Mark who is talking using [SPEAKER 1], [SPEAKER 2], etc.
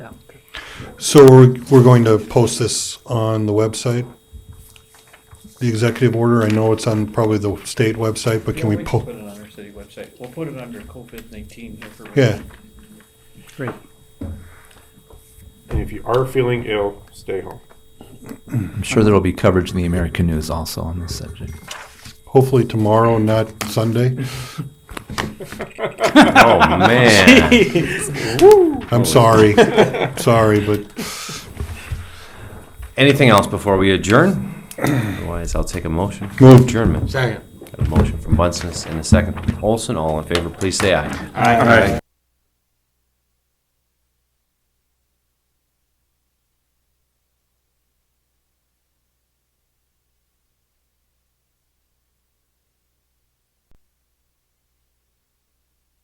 [SPEAKER 1] Yeah.
[SPEAKER 2] So we're, we're going to post this on the website? The executive order, I know it's on probably the state website, but
[SPEAKER 3] Yeah,
[SPEAKER 2] can we
[SPEAKER 3] can
[SPEAKER 2] po-
[SPEAKER 3] Put it on our city website. We'll put it under COVID nineteen information.
[SPEAKER 2] Yeah.
[SPEAKER 1] Great.
[SPEAKER 4] And if you are feeling ill, stay home.
[SPEAKER 5] I'm sure there will be coverage in the American news also on this subject.
[SPEAKER 2] hopefully tomorrow, not Sunday?
[SPEAKER 6] Oh man.
[SPEAKER 2] I'm sorry, sorry, but
[SPEAKER 6] Anything else before we adjourn? Otherwise, I'll take a motion. for
[SPEAKER 2] Moved.
[SPEAKER 6] Adjournment. Second. Got a motion from Bunsen and a second from Olson. All in favor, please say aye.
[SPEAKER 4] Aye.